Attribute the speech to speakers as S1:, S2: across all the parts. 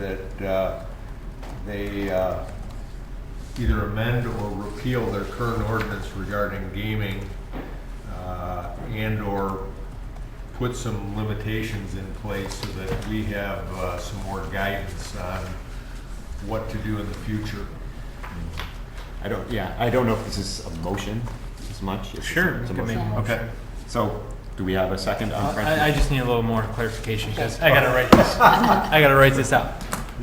S1: that uh, they uh, either amend or repeal their current ordinance regarding gaming uh, and/or put some limitations in place so that we have uh, some more guidance on what to do in the future.
S2: I don't, yeah, I don't know if this is a motion as much. if
S3: Sure,
S2: it's a- it's a
S3: we
S2: motion.
S3: can make a
S2: Okay,
S3: Uh,
S2: so do we have a second on
S3: I, I
S2: French?
S3: just need a little more clarification because I gotta write this. I gotta write this out.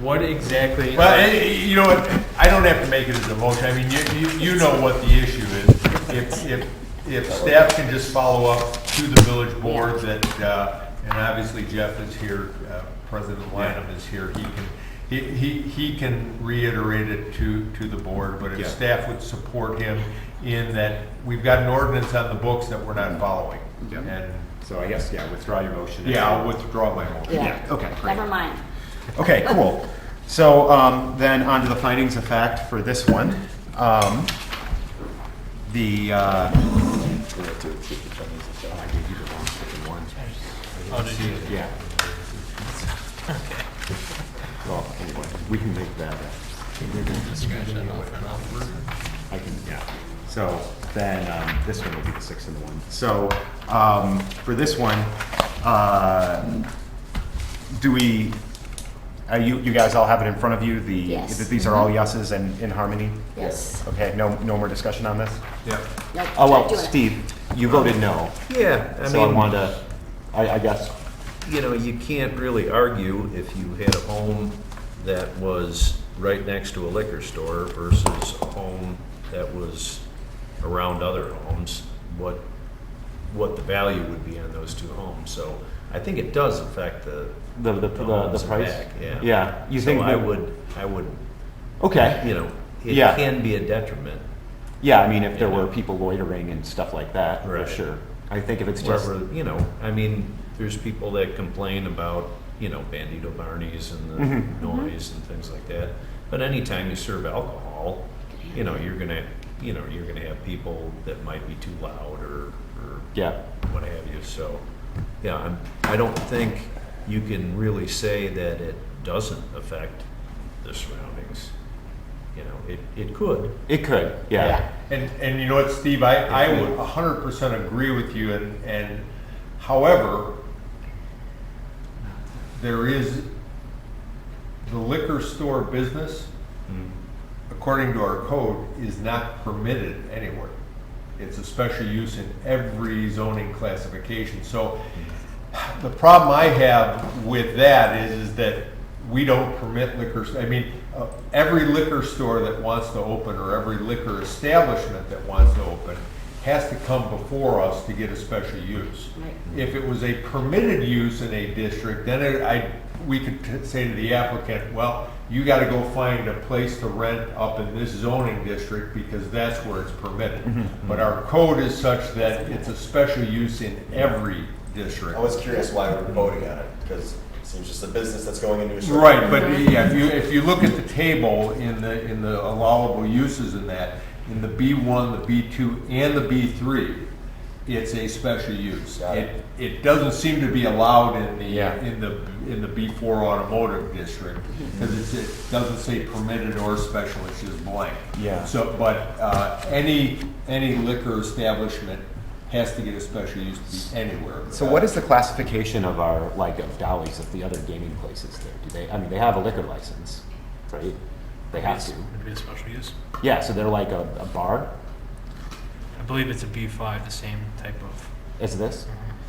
S3: What exactly?
S1: Well, eh, eh, you know what, I don't have to make it as a motion, I mean, you, you, you know what the issue is. If, if, if staff can just follow up to the village board that, uh, and obviously Jeff is here, uh, President Lineham is here, he can, he, he, he can reiterate it to, to the board, but if
S2: Yeah.
S1: staff would support him in that we've got an ordinance on the books that we're not following.
S2: Yeah.
S1: And,
S2: So I guess, yeah, withdraw your motion.
S1: Mm-hmm. yeah, I'll withdraw my motion.
S2: Yeah, okay, great.
S4: Never mind.
S2: Okay, cool. So um, then on to the findings of fact for this one. Um, The, uh, Oh, I gave you the wrong fucking one.
S3: Oh, did you?
S2: Yeah. Well, anyway, we can make that. uh, I can, yeah. So then, um, this one will be the six and the one. So, um, for this one, uh, do we, uh, you, you guys all have it in front of you? The,
S4: Yes.
S2: that These are all yeses and in harmony?
S4: Yes.
S2: Okay, no, no more discussion on this?
S1: Yeah.
S4: Nope,
S2: Oh,
S4: not
S2: well,
S4: doing it.
S2: Steve, you voted no,
S5: Yeah, I
S2: so I
S5: mean,
S2: wanted to, I, I guess,
S5: you know, you can't really argue if you had a home that was right next to a liquor store versus a home that was around other homes, what, what the value would be on those two homes. So I think it does affect the.
S2: the, the, the
S5: homes
S2: the
S5: in
S2: price.
S5: back, Yeah.
S2: Yeah, you think?
S5: So I
S2: that-
S5: would, I would, you
S2: Okay,
S5: know, it
S2: Yeah.
S5: can be a detriment
S2: yeah, I mean, if there
S5: Yeah.
S2: were people loitering and stuff like that, for
S5: Right.
S2: sure. I think if it's just,
S5: wherever, you know, I mean, there's people that complain about, you know, Bandito Barney's and
S2: Mhm.
S5: the noise and things like that. But anytime you serve alcohol, you know, you're gonna, you know, you're gonna have people that might be too loud or, or
S2: yeah,
S5: what have you, so, yeah, I'm, I don't think you can really say that it doesn't affect the surroundings. You know, it, it could,
S2: it could, yeah.
S1: And, and you know what, Steve, I, I would hundred percent agree with you and, and however, there is the liquor store business, according to our code, is not permitted anywhere. It's a special use in every zoning classification. So the problem I have with that is, is that we don't permit liquor, I mean, uh, every liquor store that wants to open or every liquor establishment that wants to open has to come before us to get a special use.
S4: Right.
S1: If it was a permitted use in a district, then it- I, we could t- say to the applicant, well, you gotta go find a place to rent up in this zoning district because that's where it's permitted. But our code is such that it's a special use in every district.
S6: I was curious why we're voting on it, because it seems just a business that's going into a shop.
S1: Right, but yeah, if you, if you look at the table in the, in the allowable uses in that, in the B one, the B two, and the B three, it's a special use.
S6: Got it.
S1: It, it doesn't seem to be allowed in
S2: Yeah.
S1: the, in the, in the B four automotive district, because it's, it doesn't say permitted or special, it's just blank.
S2: Yeah.
S1: So, but, uh, any, any liquor establishment has to get a special use to be anywhere.
S2: So what is the classification of our, like, of Dolly's, of the other gaming places there? Do they, I mean, they have a liquor license, right? They have to.
S3: It'd be a special use.
S2: Yeah, so they're like a, a bar,
S3: I believe it's a B five, the same type of.
S2: is this?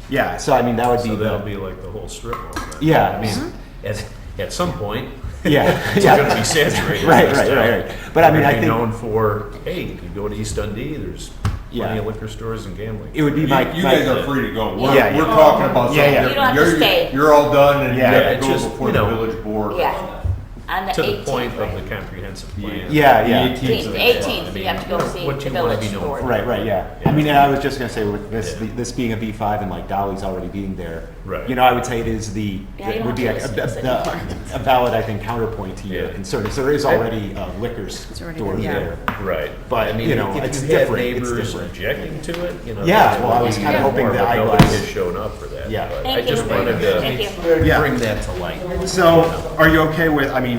S2: Yeah, so I mean, that would be
S5: so that'll
S2: the,
S5: be like the whole strip mall. then.
S2: yeah, I mean,
S4: Mm-hmm.
S5: At, at some point,
S2: yeah,
S5: it's
S2: yeah.
S5: gonna be saturated.
S2: Right,
S5: this
S2: right,
S5: town.
S2: right, right. But I mean, I
S5: They're gonna
S2: think
S5: be known for, hey, you could go to East Dundee, there's
S2: Yeah.
S5: plenty of liquor stores and gambling.
S2: it would be
S1: You,
S2: my.
S1: you
S2: my-
S1: guys are free to go. We're,
S2: Yeah, yeah.
S1: we're talking about something
S2: Yeah, yeah.
S1: different.
S4: You don't have to
S1: You're-
S4: stay.
S1: You're all done and you
S2: Yeah,
S1: have
S5: it's
S1: to go
S5: just,
S1: before
S5: you
S1: the
S5: know,
S1: village board.
S4: Yeah, on the
S5: To
S4: eighteenth,
S5: the point of the
S4: right?
S5: comprehensive plan.
S2: Yeah,
S1: The
S2: yeah.
S1: 18th.
S4: Eighteenth,
S5: I
S4: eighteenth, you
S5: mean,
S4: have to go see
S5: what
S4: the
S5: you wanna be
S4: village
S5: known
S4: board.
S5: for.
S2: Right, right, yeah. I mean, and I was just gonna say with this, the- this being a B five and like Dolly's already being there.
S5: Right.
S2: You know, I would say it is the,
S4: Yeah, you
S2: it
S4: don't
S2: would be a,
S4: have to
S2: a-
S4: listen to
S2: the- a valid, I think, counterpoint to your
S5: Yeah.
S2: concern. Because there is already a liquor store
S7: yeah.
S2: there.
S5: Right.
S2: But,
S5: I mean,
S2: you know,
S5: if
S2: it's
S5: you had
S2: different, it's
S5: neighbors
S2: different.
S5: objecting to it, you know.
S2: Yeah,
S5: that's
S2: well, I
S5: one
S2: was
S5: thing,
S2: kinda
S5: but
S2: hoping the
S5: Nobody
S2: eyeglass-
S5: has shown up for that. that,
S2: Yeah.
S5: but I
S4: Thank you.
S5: just wanted to
S4: Thank you.
S2: Yeah.
S5: bring that to light.
S2: So, are you okay with, I mean,